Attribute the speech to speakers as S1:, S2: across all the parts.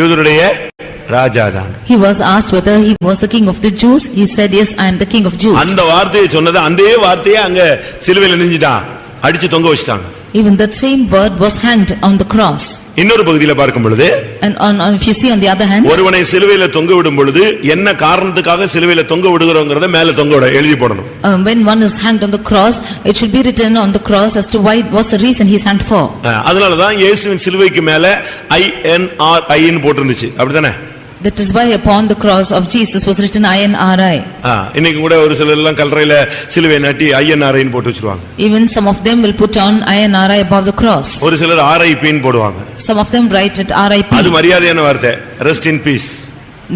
S1: யூதருடைய ராஜா தான்
S2: He was asked whether he was the king of the Jews. He said, Yes, I am the king of Jews.
S1: அந்த வார்த்தையை சொன்னது அதே வார்த்தையை அங்க சிலுவையில நெஞ்சிட்டான் அடிச்சு தொங்க வச்சிட்டாங்க
S2: Even that same word was hanged on the cross.
S1: இன்னொரு பகுதியில பார்க்கும் பொழுது
S2: And on, on- if you see on the other hand,
S1: ஒருவனை சிலுவையில தொங்க விடும் பொழுது என்ன காரணத்துக்காக சிலுவையில தொங்க விடுகிறோங்கிறத மேல தொங்க விட எழுதி போடணும்
S2: um, when one is hanged on the cross, it should be written on the cross as to why, what's the reason he's hanged for.
S1: அஹ், அதனாலதான் இயேசுவின் சிலுவைக்கு மேல ஐ என் ஆர் ஐன்னு போட்டிருந்துச்சு அப்படிதானே
S2: That is why upon the cross of Jesus was written INRI.
S1: அஹ், இன்னைக்கு கூட ஒரு சிலர் எல்லாம் கல்லறையில சிலுவை நாட்டி ஐஎன்ஆர்ஐன்னு போட்டு வச்சிருவாங்க
S2: Even some of them will put on INRI above the cross.
S1: ஒரு சிலர் RIP ன்னு போடுவாங்க
S2: Some of them write it
S1: அது
S2: RIP.
S1: மரியாதையான வார்த்தை rest in peace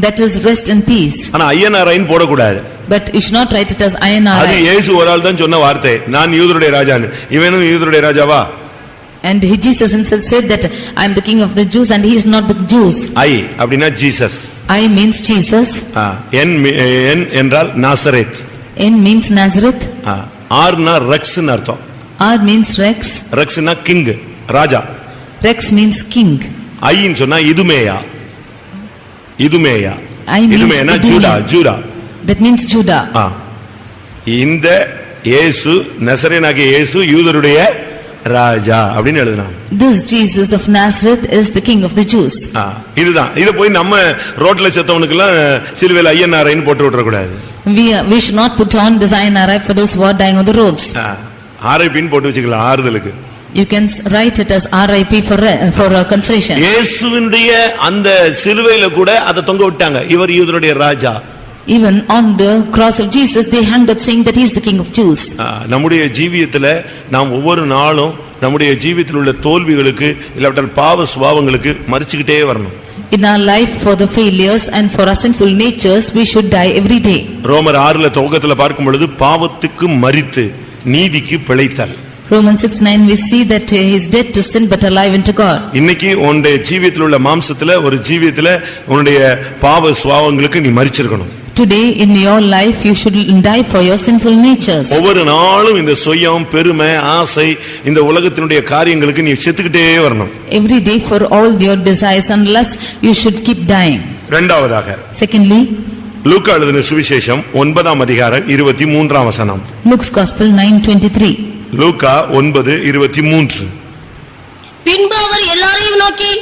S2: That is rest in peace.
S1: ஆனா ஐஎன்ஆர்ஐன்னு போடக்கூடாது
S2: But you should not write it as
S1: அது
S2: INRI.
S1: இயேசு ஒரு ஆள் தான் சொன்ன வார்த்தை நான் யூதருடைய ராஜான்னு இவனும் யூதருடைய ராஜாவா
S2: And he- Jesus himself said that I am the king of the Jews and he is not the Jews.
S1: I அப்படின்னா ஜீசஸ்
S2: I means Jesus,
S1: ஆ, என் மி- என் என்றால் நாசரேத்
S2: N means Nazareth,
S1: ஆ, ஆர்னா ரக்ஸ்னு அர்த்தம்
S2: R means Rex,
S1: ரக்ஸ்னா king ராஜா
S2: Rex means king.
S1: ஐன்னு சொன்னா இதுமேயா இதுமேயா
S2: ஐ means
S1: இதுமேனா ஜூடா
S2: இதுமே.
S1: Judah
S2: That means Judah.
S1: ஆ. இந்த இயேசு நசரேனாகிய இயேசு யூதருடைய ராஜா அப்படின்னு எழுதுனான்
S2: This Jesus of Nazareth is the king of the Jews.
S1: ஆ, இதுதான் இதை போய் நம்ம ரோட்ல செத்தவனுக்கெல்லாம் சிலுவையில் ஐயனாரைன்னு போட்டு விட்டுறக்கூடாது
S2: We, are- we should not put on this INRI for those who are dying on the roads.
S1: ஆரைப்பின்னு போட்டு வச்சுக்கலாம் ஆறுதலுக்கு
S2: You can s- write it as RIP for, re- for uh, consolation.
S1: இயேசுவினுடைய அந்த சிலுவையில கூட அதை தொங்க விட்டாங்க இவர் யூதருடைய ராஜா
S2: Even on the cross of Jesus, they hanged it saying that he is the king of Jews.
S1: ஆ, நம்முடைய ஜீவியத்துல நாம் ஒவ்வொரு நாளும் நம்முடைய ஜீவியத்தில் உள்ள தோல்விகளுக்கு இல்லாவிட்டால் பாவ சுபாவங்களுக்கு மறிச்சுக்கிட்டே வரணும்
S2: In our life for the failures and for our sinful natures, we should die every day.
S1: ரோமர் ஆறுல துவக்கத்துல பார்க்கும் பொழுது பாவத்துக்கு மறித்து நீதிக்கு பிழைத்தல்
S2: Romans 6 9, we see that uh, he is dead to sin but alive unto God.
S1: இன்னைக்கு உன்னுடைய ஜீவியத்தில் உள்ள மாம்சத்துல ஒரு ஜீவியத்துல உன்னுடைய பாவ சுபாவங்களுக்கு நீ மறிச்சிருக்கணும்
S2: Today in your life, you should die for your sinful natures.
S1: ஒவ்வொரு நாளும் இந்த சுயம் பெருமை ஆசை இந்த உலகத்தினுடைய காரியங்களுக்கு நீ செத்துக்கிட்டே வரணும்
S2: Every day for all your desires and lusts, you should keep dying.
S1: இரண்டாவதாக
S2: Secondly,
S1: லூக்கா எழுதின சுவிசேஷம் ஒன்பதாம் அதிகாரம் இருபத்தி மூன்றாம் வசனம்
S2: Luke's Gospel 9 23.
S1: லூக்கா ஒன்பது இருபத்தி மூன்று
S3: பின்பு அவர் எல்லாரையும் நோக்கி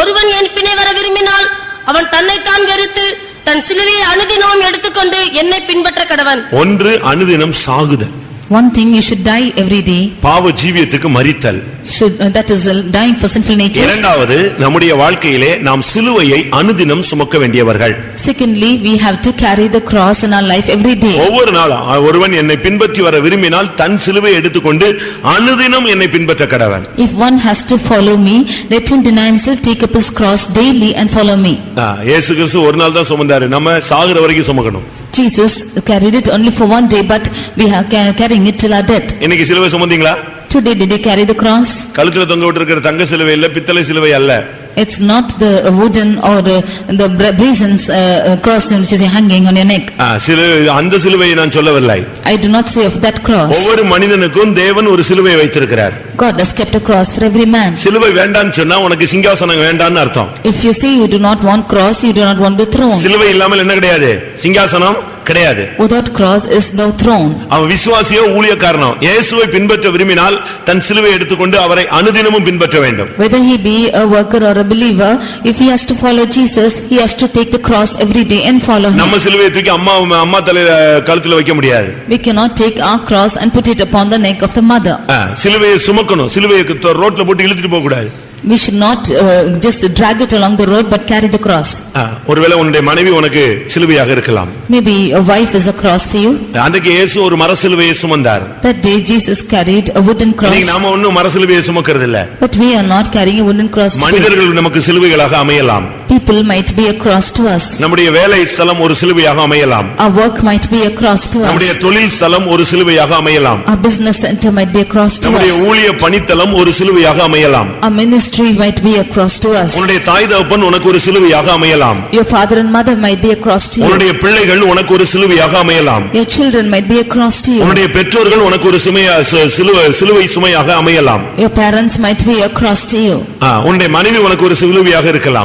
S3: ஒருவன் என் பின்னே வர விரும்பினால் அவன் தன்னைத்தான் வெறுத்து தன் சிலுவையை அனுதினமும் எடுத்துக்கொண்டு என்னை பின்பற்ற கடவன்
S1: ஒன்று அனுதினம் சாகுதல்
S2: One thing you should die every day,
S1: பாவ ஜீவியத்துக்கு மறித்தல்
S2: should, uh, that is uh, dying for sinful natures.
S1: இரண்டாவது நம்முடைய வாழ்க்கையிலே நாம் சிலுவையை அனுதினம் சுமக்க வேண்டியவர்கள்
S2: Secondly, we have to carry the cross in our life every day.
S1: ஒவ்வொரு நாளும் அ- ஒருவன் என்னை பின்பற்றி வர விரும்பினால் தன் சிலுவையை எடுத்துக்கொண்டு அனுதினம் என்னை பின்பற்ற கடவன்
S2: If one has to follow me, let him deny himself, take up his cross daily and follow me.
S1: ஆ, இயேசு கிறிஸ்து ஒரு நாள் தான் சுமந்தாரு நம்ம சாகுற வரைக்கும் சுமக்கணும்
S2: Jesus carried it only for one day, but we are ca- carrying it till our death.
S1: இன்னைக்கு சிலுவை சுமந்தீங்களா
S2: Today, did you carry the cross?
S1: கழுத்துல தொங்க விட்டிருக்கிற தங்க சிலுவை இல்ல பித்தளை சிலுவை அல்ல
S2: It's not the wooden or uh, the bra- brazen uh, uh, cross which is hanging on your neck.
S1: ஆ, சிலுவை அந்த சிலுவையை நான் சொல்லவில்லை
S2: I do not say of that cross.
S1: ஒவ்வொரு மனிதனுக்கும் தேவன் ஒரு சிலுவையை வைத்திருக்கிறார்
S2: God has kept a cross for every man.
S1: சிலுவை வேண்டாம்னு சொன்னா உனக்கு சிங்காசனம் வேண்டாம்னு அர்த்தம்
S2: If you say you do not want cross, you do not want the throne.
S1: சிலுவை இல்லாமல் என்ன கிடையாது சிங்காசனம் கிடையாது
S2: Without cross is no throne.
S1: அவன் விசுவாசியோ ஊழியக்காரனோ இயேசுவை பின்பற்ற விரும்பினால் தன் சிலுவை எடுத்துக்கொண்டு அவரை அனுதினமும் பின்பற்ற வேண்டும்
S2: Whether he be a worker or a believer, if he has to follow Jesus, he has to take the cross every day and follow him.
S1: நம்ம சிலுவையை தூக்கி அம்மா அம்மா தலையில கழுத்துல வைக்க முடியாது
S2: We cannot take our cross and put it upon the neck of the mother.
S1: ஆ, சிலுவையை சுமக்கணும் சிலுவையை கு- ரோட்ல போட்டு இழுத்துட்டு போக கூடாது
S2: We should not uh, just drag it along the road but carry the cross.
S1: ஆ, ஒருவேளை உன்னுடைய மனைவி உனக்கு சிலுவையாக இருக்கலாம்
S2: Maybe a wife is a cross for you.
S1: அன்றைக்கு இயேசு ஒரு மர சிலுவையை சுமந்தார்
S2: That day Jesus carried a wooden
S1: இன்னைக்கு
S2: cross.
S1: நாம ஒண்ணும் மர சிலுவையை சுமக்கிறது இல்ல
S2: But we are not carrying a wooden cross today.
S1: மனிதர்கள் நமக்கு சிலுவைகளாக அமையலாம்
S2: People might be a cross to us.
S1: நம்முடைய வேலை ஸ்தலம் ஒரு சிலுவையாக அமையலாம்
S2: Our work might be a cross to
S1: நம்முடைய
S2: us.
S1: தொழில் ஸ்தலம் ஒரு சிலுவையாக அமையலாம்
S2: Our business center might be a cross to
S1: நம்முடைய
S2: us.
S1: ஊழிய பணித்தலம் ஒரு சிலுவையாக அமையலாம்
S2: Our ministry might be a cross to us.
S1: உன்னுடைய தாய் தகப்பன் உனக்கு ஒரு சிலுவையாக அமையலாம்
S2: Your father and mother might be a cross to you.
S1: உன்னுடைய பிள்ளைகள் உனக்கு ஒரு சிலுவையாக அமையலாம்
S2: Your children might be a cross to you.
S1: உன்னுடைய பெற்றோர்கள் உனக்கு ஒரு சுமையா சு- சிலுவை- சிலுவை சுமையாக அமையலாம்
S2: Your parents might be a cross to you.
S1: ஆ, உன்னுடைய மனைவி உனக்கு ஒரு சிலுவையாக இருக்கலாம்